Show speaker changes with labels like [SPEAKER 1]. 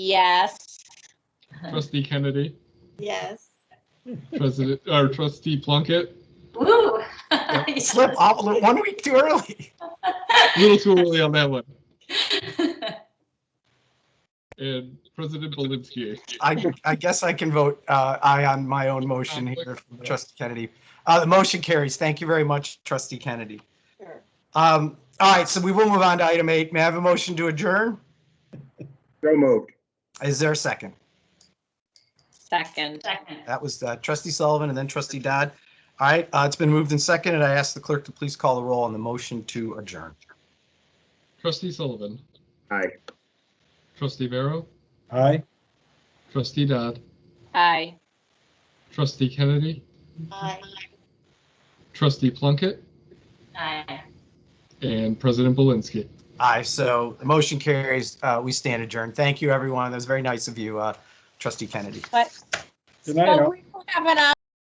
[SPEAKER 1] Yes.
[SPEAKER 2] Trustee Kennedy,
[SPEAKER 1] Yes.
[SPEAKER 2] President, or Trustee Plunkett,
[SPEAKER 1] Woo.
[SPEAKER 3] slip off li- one week too early.
[SPEAKER 2] a little too early on that one, and President Belinsky.
[SPEAKER 3] I, I guess I can vote uh, aye on my own motion here, trustee Kennedy. Uh, The motion carries. Thank you very much, trustee Kennedy.
[SPEAKER 1] Sure.
[SPEAKER 3] Um, All right, so we will move on to item eight. May I have a motion to adjourn?
[SPEAKER 4] So moved.
[SPEAKER 3] Is there a second?
[SPEAKER 1] Second. Second.
[SPEAKER 3] That was uh, trustee Sullivan and then trustee Dodd. All right, uh, it's been moved and seconded. I ask the clerk to please call the roll on the motion to adjourn.
[SPEAKER 2] Trustee Sullivan,
[SPEAKER 4] Aye.
[SPEAKER 2] Trustee Vero,
[SPEAKER 5] Aye.
[SPEAKER 2] Trustee Dodd,
[SPEAKER 1] Aye.
[SPEAKER 2] Trustee Kennedy,
[SPEAKER 1] Aye.
[SPEAKER 2] Trustee Plunkett,
[SPEAKER 1] Aye.
[SPEAKER 2] and President Belinsky.
[SPEAKER 3] Aye, so the motion carries. Uh, We stand adjourned. Thank you, everyone. That was very nice of you, uh, trustee Kennedy.
[SPEAKER 5] Good night, all.
[SPEAKER 1] we don't have an